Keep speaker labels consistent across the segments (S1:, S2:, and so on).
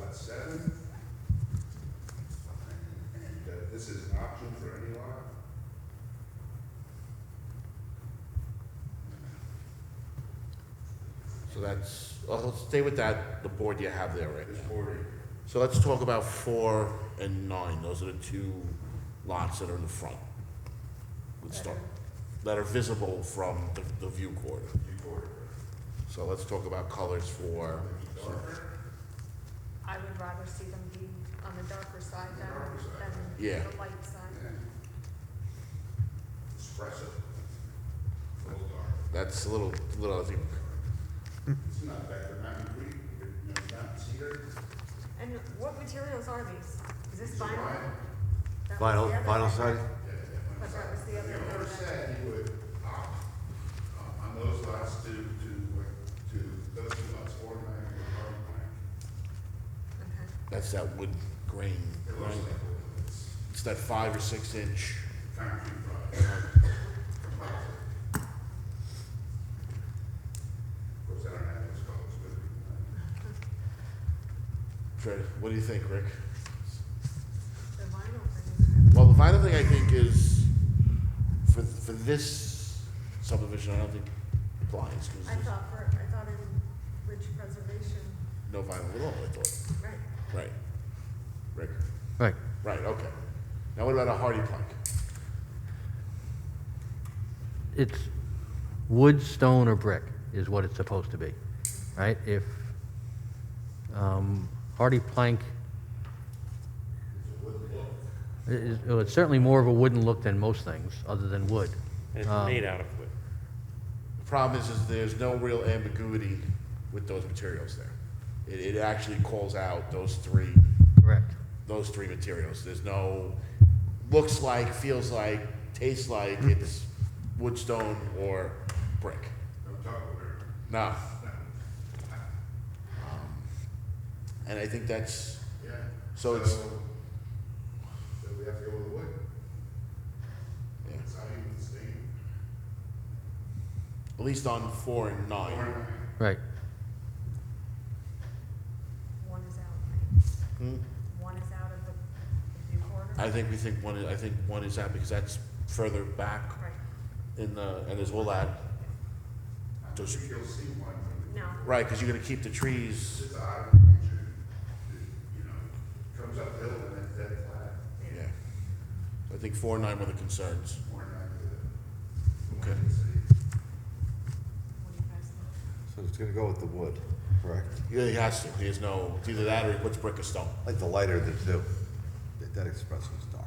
S1: President, that this is an option for any lot?
S2: So that's, well, let's stay with that, the board you have there right
S1: This
S2: now.
S1: board,
S2: So let's talk about four and nine, those are the two lots that are in the front. Let's start, that are visible from the, the view quarter.
S1: you board.
S2: So let's talk about colors for,
S3: I would rather see them be on the darker side
S1: The
S3: than,
S1: darker side.
S3: than
S2: Yeah.
S3: the light side.
S1: Espresso. A little dark.
S2: that's a little, little, I think,
S1: It's not back to Mountain Creek, but, you know, Mount Cedar.
S3: And what materials are these? Is this
S1: It's
S3: vinyl?
S1: vinyl.
S3: That was
S4: Vinyl,
S3: the other
S4: vinyl
S3: thing.
S4: side?
S1: Yeah, yeah.
S3: But that was the other
S1: The owner
S3: one.
S1: said he would opt uh, on those lots to, to, uh, to, those two lots, four and nine, were hard plan.
S3: Okay.
S2: that's that wood grain,
S1: It
S2: right?
S1: looks like it's
S2: It's that five or six inch.
S1: concrete product. composite. Of course, I don't have those colors, but uh,
S2: Fred, what do you think, Rick?
S3: The vinyl thing.
S2: Well, the final thing I think is, for, for this subdivision, I don't think applies, because
S3: I
S2: there's
S3: thought for, I thought in rich preservation,
S2: no vinyl at all, I thought.
S3: right,
S2: Right. Rick?
S4: Right.
S2: Right, okay. Now what about a hardy plank?
S4: It's wood, stone, or brick is what it's supposed to be, right? If um, hardy plank, i- is- well, it's certainly more of a wooden look than most things, other than wood.
S5: And
S4: Um,
S5: it's made out of wood.
S2: The problem is, is there's no real ambiguity with those materials there. It, it actually calls out those three,
S4: Correct.
S2: those three materials. There's no, looks like, feels like, tastes like, it's wood, stone, or brick.
S1: don't talk over it.
S2: Nah. Um, And I think that's,
S1: Yeah.
S2: So it's-
S1: So we have to go with the wood.
S2: Yeah.
S1: It's not even the same.
S2: at least on four and
S1: Or
S2: nine.
S1: nine.
S4: Right.
S3: one is out, right?
S2: Hmm?
S3: One is out of the, the view corridor?
S2: I think we think one, is- I think one is out because that's further back
S3: Right,
S2: in the, and there's all that,
S1: I don't
S2: Does-
S1: think you'll see one from the.
S3: no,
S2: right, because you're gonna keep the trees,
S1: It's odd, you know, comes uphill and it's dead flat.
S2: yeah. I think four and nine were the concerns.
S1: Or nine to the.
S2: Okay.
S3: what do you guys think?
S6: So it's gonna go with the wood, correct?
S2: Yeah, he has to, he has no, it's either that or he puts brick or stone.
S6: I Like the lighter of the two. That- That espresso's dark.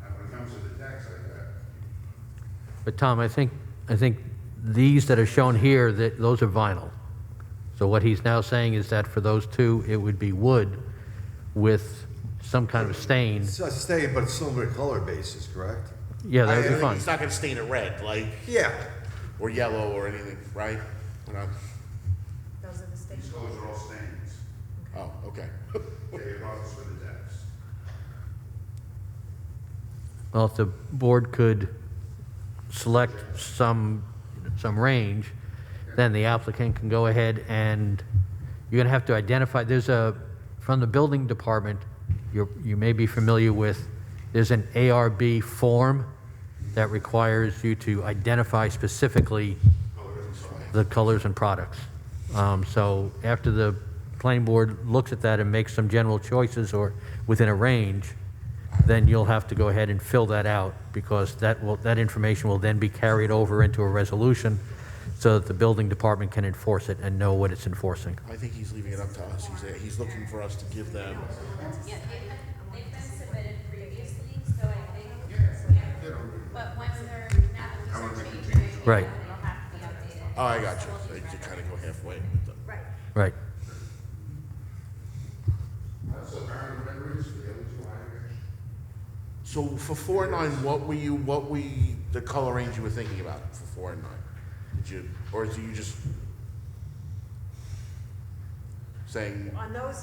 S1: Now, when it comes to the tax like that,
S4: But Tom, I think, I think these that are shown here, that, those are vinyl. So what he's now saying is that for those two, it would be wood with some kind of stain.
S6: It's a stain, but it's silver color basis, correct?
S4: Yeah, that would
S2: I- I
S4: be
S2: think
S4: fine.
S2: It's not gonna stain it red, like,
S6: Yeah.
S2: or yellow or anything, right? We're not,
S3: Those are the
S1: these
S3: stations.
S1: colors are all stains.
S2: oh, okay.
S1: They allow us for the tax.
S4: Well, if the board could select some, some range, then the applicant can go ahead and, you're going to have to identify, there's a, from the building department, you're, you may be familiar with, there's an ARB form that requires you to identify specifically the colors and products. Um, So after the planning board looks at that and makes some general choices or within a range, then you'll have to go ahead and fill that out because that will, that information will then be carried over into a resolution so that the building department can enforce it and know what it's enforcing.
S2: I think he's leaving it up to us, he's, he's looking for us to give them,
S7: Yeah, they've been, they've been submitted previously, so I think,
S1: They don't-
S7: but once they're, now that these are changed,
S4: Right.
S7: they'll have to be updated.
S2: oh, I got you, they kinda go halfway with them.
S3: Right,
S4: Right.
S1: That's the current renderings, the other two higher.
S2: So for four and nine, what were you, what we, the color range you were thinking about for four and nine? Did you, or do you just saying
S3: on those